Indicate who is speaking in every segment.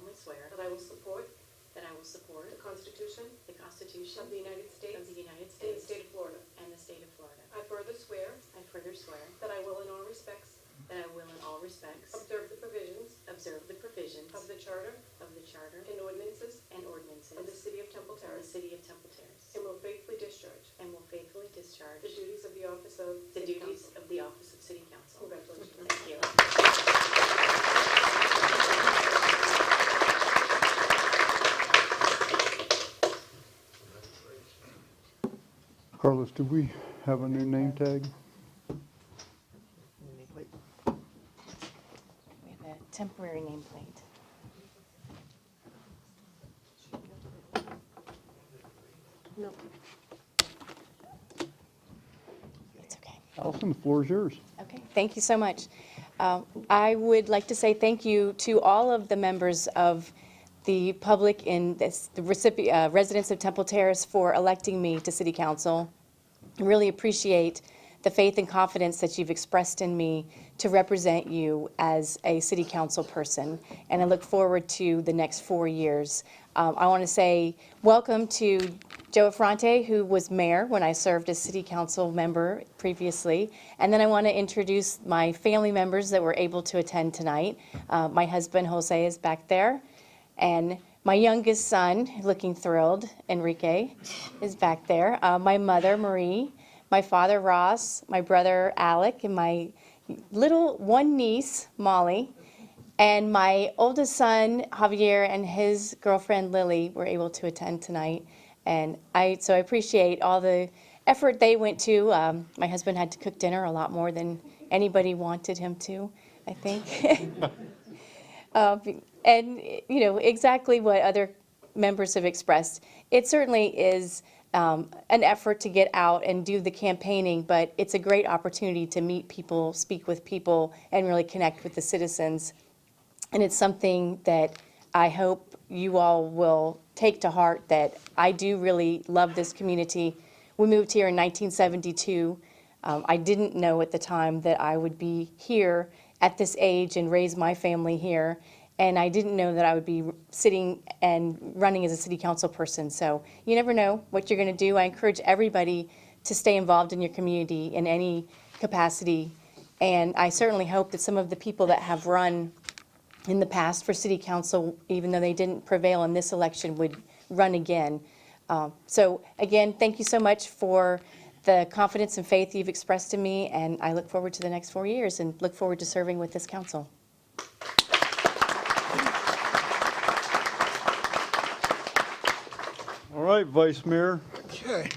Speaker 1: I will support
Speaker 2: that I will support
Speaker 1: the Constitution
Speaker 2: the Constitution
Speaker 1: of the United
Speaker 2: of
Speaker 1: States
Speaker 2: the United
Speaker 1: and the
Speaker 2: States
Speaker 1: state of Florida.
Speaker 2: and the state of Florida.
Speaker 1: I further swear
Speaker 2: I further swear
Speaker 1: that I will in all respects
Speaker 2: that I will in all respects
Speaker 1: observe the provisions
Speaker 2: observe the provisions
Speaker 1: of the Charter
Speaker 2: of the Charter
Speaker 1: and ordinances
Speaker 2: and
Speaker 1: of the
Speaker 2: ordinances
Speaker 1: City of
Speaker 2: of
Speaker 1: Temple
Speaker 2: the
Speaker 1: Terrace
Speaker 2: city of Temple Terrace
Speaker 1: and will faithfully discharge
Speaker 2: and will faithfully discharge
Speaker 1: the duties of the office of
Speaker 2: the
Speaker 1: City
Speaker 2: duties
Speaker 1: Council.
Speaker 2: of the office of city council.
Speaker 1: Congratulations.
Speaker 2: Thank you.
Speaker 3: Carlos, do we have a new name tag?
Speaker 4: We have a temporary nameplate. No. It's okay.
Speaker 3: Allison, the floor is yours.
Speaker 4: Okay, thank you so much. Uh, I would like to say thank you to all of the members of the public in this, the recipi- uh, residents of Temple Terrace for electing me to city council. I Really appreciate the faith and confidence that you've expressed in me to represent you as a city council person, and I look forward to the next four years. Um, I want to say welcome to Joe Affronte, who was mayor when I served as city council member previously. And then I want to introduce my family members that were able to attend tonight. Uh, my husband Jose is back there, and my youngest son, looking thrilled, Enrique, is back there. Uh, my mother Marie, my father Ross, my brother Alec, and my little one niece Molly. And my oldest son, Javier, and his girlfriend Lily were able to attend tonight. And I, so I appreciate all the effort they went to. Um, my husband had to cook dinner a lot more than anybody wanted him to, I think. Uh, and, you know, exactly what other members have expressed. It certainly is um, an effort to get out and do the campaigning, but it's a great opportunity to meet people, speak with people, and really connect with the citizens. And it's something that I hope you all will take to heart that I do really love this community. We moved here in 1972. Um, I didn't know at the time that I would be here at this age and raise my family here. And I didn't know that I would be sitting and running as a city council person. So you never know what you're going to do. I encourage everybody to stay involved in your community in any capacity. And I certainly hope that some of the people that have run in the past for city council, even though they didn't prevail in this election, would run again. Um, So again, thank you so much for the confidence and faith you've expressed in me, and I look forward to the next four years and look forward to serving with this council.
Speaker 3: All right, Vice Mayor.
Speaker 5: Okay.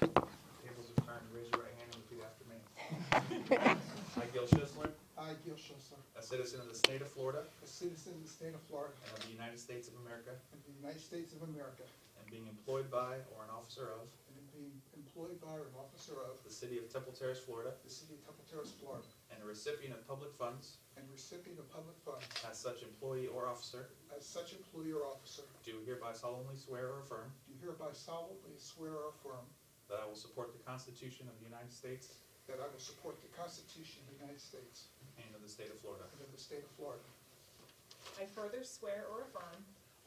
Speaker 6: Tables are turned, raise your right hand and repeat after me. I, Gil Schisler,
Speaker 5: I, Gil Schlosser,
Speaker 6: a citizen of the state of Florida
Speaker 5: a citizen of the state of Florida
Speaker 6: and of the United States of America,
Speaker 5: and the United States of America,
Speaker 6: and being employed by or an officer of
Speaker 5: and am being employed by or an officer of
Speaker 6: the city of Temple Terrace, Florida,
Speaker 5: the city of Temple Terrace, Florida,
Speaker 6: and a recipient of public funds
Speaker 5: and recipient of public funds
Speaker 6: as such employee or officer,
Speaker 5: as such employee or officer,
Speaker 6: do hereby solemnly swear or affirm
Speaker 5: do hereby solemnly swear or affirm
Speaker 6: that I will support the Constitution of the United States
Speaker 5: that I will support the Constitution of the United States
Speaker 6: and of the state of Florida.
Speaker 5: and of the state of Florida.
Speaker 7: I further swear or affirm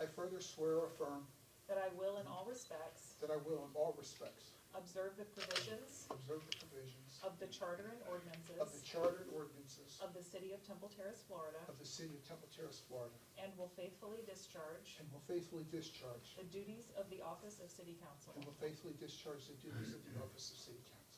Speaker 5: I further swear or affirm
Speaker 7: that I will in all respects
Speaker 5: that I will in all respects
Speaker 7: observe the provisions
Speaker 5: observe the provisions
Speaker 7: of the charter and
Speaker 5: of the
Speaker 7: ordinances
Speaker 5: chartered ordinances
Speaker 7: of the city of Temple Terrace, Florida,
Speaker 5: of the city of Temple Terrace, Florida,
Speaker 7: and will faithfully discharge
Speaker 5: and will faithfully discharge
Speaker 7: the duties of the office of city council.
Speaker 5: And will faithfully discharge the duties of the office of city council.